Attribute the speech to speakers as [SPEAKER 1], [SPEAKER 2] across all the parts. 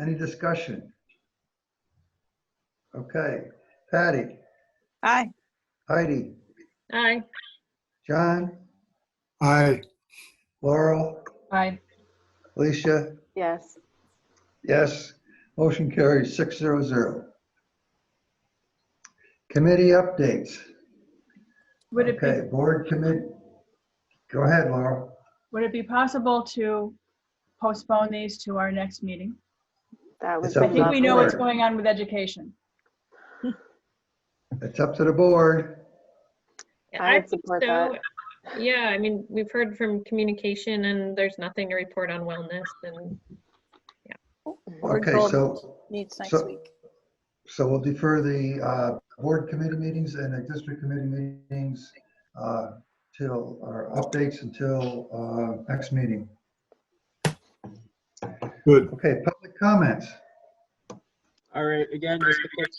[SPEAKER 1] Any discussion? Okay, Patty,
[SPEAKER 2] Aye.
[SPEAKER 1] Heidi,
[SPEAKER 3] Aye.
[SPEAKER 1] John,
[SPEAKER 4] Aye.
[SPEAKER 1] Laurel,
[SPEAKER 3] Aye.
[SPEAKER 1] Alicia,
[SPEAKER 5] Yes.
[SPEAKER 1] yes. Motion carries six zero zero. Committee updates.
[SPEAKER 3] Would it be,
[SPEAKER 1] Okay, board commit, go ahead, Laurel.
[SPEAKER 3] would it be possible to postpone these to our next meeting?
[SPEAKER 5] That was.
[SPEAKER 1] It's up
[SPEAKER 3] I
[SPEAKER 1] to
[SPEAKER 3] think we know what's
[SPEAKER 1] Sure.
[SPEAKER 3] going on with education.
[SPEAKER 1] It's up to the board.
[SPEAKER 5] I
[SPEAKER 6] I
[SPEAKER 5] would
[SPEAKER 6] think
[SPEAKER 5] support
[SPEAKER 6] so.
[SPEAKER 5] that.
[SPEAKER 6] Yeah, I mean, we've heard from communication and there's nothing to report on wellness and
[SPEAKER 2] Board
[SPEAKER 1] Okay,
[SPEAKER 2] goal
[SPEAKER 1] so,
[SPEAKER 2] Meets next
[SPEAKER 1] so-
[SPEAKER 2] week.
[SPEAKER 1] so we'll defer the uh, board committee meetings and the district committee meetings uh, till, or updates until uh, next meeting.
[SPEAKER 4] Good.
[SPEAKER 1] Okay, public comments.
[SPEAKER 7] All right, again, just a quick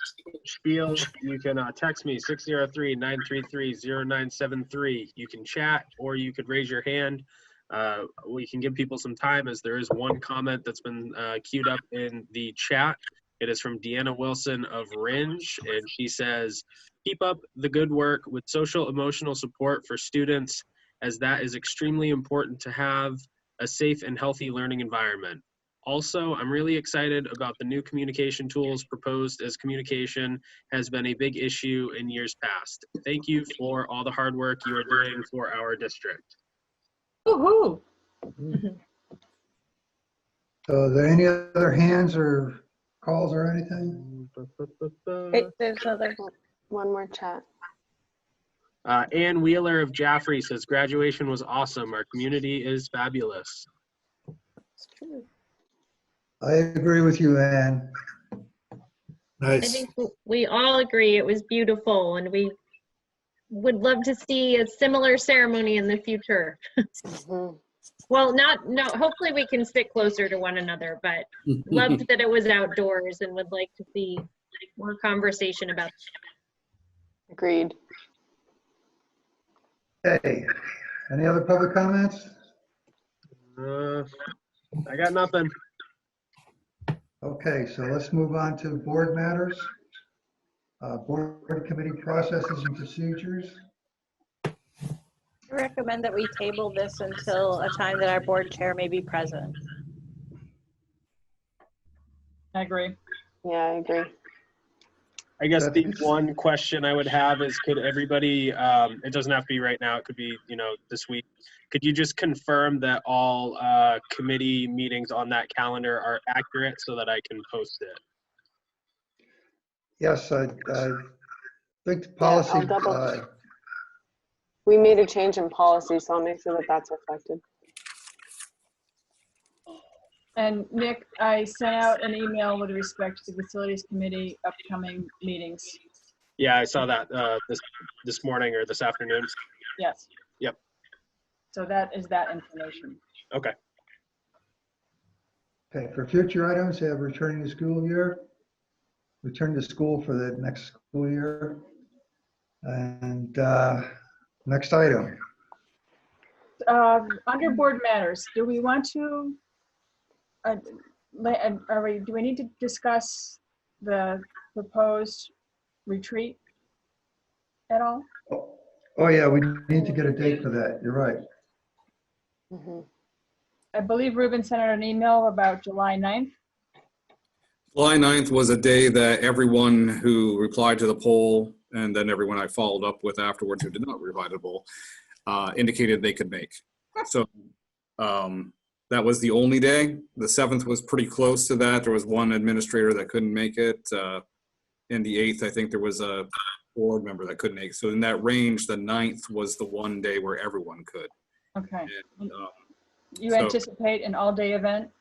[SPEAKER 7] spiel. You can uh, text me 603-933-0973. You can chat or you could raise your hand. Uh, we can give people some time as there is one comment that's been uh, queued up in the chat. It is from Deanna Wilson of Ringe, and she says, "Keep up the good work with social emotional support for students, as that is extremely important to have a safe and healthy learning environment." Also, I'm really excited about the new communication tools proposed as communication has been a big issue in years past. Thank you for all the hard work you are doing for our district.
[SPEAKER 3] Woo-hoo.
[SPEAKER 1] So are there any other hands or calls or anything?
[SPEAKER 2] Hey, There's another,
[SPEAKER 5] One more chat.
[SPEAKER 7] Uh, Ann Wheeler of Jaffrey says graduation was awesome. Our community is fabulous.
[SPEAKER 5] It's true.
[SPEAKER 1] I agree with you, Ann.
[SPEAKER 6] I
[SPEAKER 4] Nice.
[SPEAKER 6] think w- we all agree it was beautiful and we would love to see a similar ceremony in the future.
[SPEAKER 5] Mhm.
[SPEAKER 6] Well, not, no, hopefully we can stick closer to one another, but loved that it was outdoors and would like to see like, more conversation about
[SPEAKER 5] Agreed.
[SPEAKER 1] Hey, any other public comments?
[SPEAKER 7] Uh, I got nothing.
[SPEAKER 1] Okay, so let's move on to board matters. Uh, Board committee processes and procedures.
[SPEAKER 2] I recommend that we table this until a time that our board chair may be present.
[SPEAKER 3] I agree.
[SPEAKER 5] Yeah, I agree.
[SPEAKER 7] I guess the
[SPEAKER 1] That's-
[SPEAKER 7] one question I would have is could everybody, um, it doesn't have to be right now, it could be, you know, this week. Could you just confirm that all, uh, committee meetings on that calendar are accurate so that I can post it?
[SPEAKER 1] Yes, I, I think the policy.
[SPEAKER 5] I'll double-
[SPEAKER 1] uh,
[SPEAKER 5] We made a change in policy, so I'll make sure that that's reflected.
[SPEAKER 3] And Nick, I sent out an email with respect to the facilities committee upcoming meetings.
[SPEAKER 7] Yeah, I saw that, uh, this, this morning or this afternoon.
[SPEAKER 3] Yes.
[SPEAKER 7] Yep.
[SPEAKER 3] So that is that information.
[SPEAKER 1] Okay, for future items, have returning to school year, return to school for the next school year. And uh, next item,
[SPEAKER 3] Uh, Under board matters, do we want to, uh, la- uh, are we, do we need to discuss the proposed retreat at all?
[SPEAKER 1] oh yeah, we need to get a date for that, you're right.
[SPEAKER 5] Mhm.
[SPEAKER 3] I believe Ruben sent out an email about July 9th.
[SPEAKER 8] July 9th was a day that everyone who replied to the poll, and then everyone I followed up with afterwards who did not reply to the poll, uh, indicated they could make. So um, that was the only day. The 7th was pretty close to that. There was one administrator that couldn't make it. uh, And the 8th, I think there was a board member that couldn't make. it. So in that range, the 9th was the one day where everyone could.
[SPEAKER 3] Okay.
[SPEAKER 8] Um,
[SPEAKER 3] You
[SPEAKER 8] So-
[SPEAKER 3] anticipate an all-day event?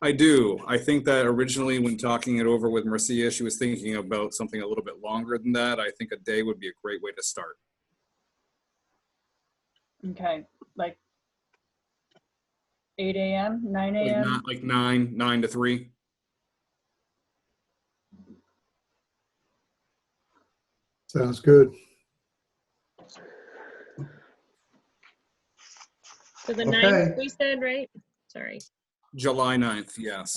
[SPEAKER 8] I do. I think that originally, when talking it over with Marcia, she was thinking about something a little bit longer than that. I think a day would be a great way to start.
[SPEAKER 3] Okay, like 8 AM, 9
[SPEAKER 8] Like,
[SPEAKER 3] AM?
[SPEAKER 8] not, like nine, nine to three.
[SPEAKER 4] Sounds good.
[SPEAKER 6] So the
[SPEAKER 1] Okay.
[SPEAKER 6] ninth, we said, right? Sorry.
[SPEAKER 8] July 9th, yes.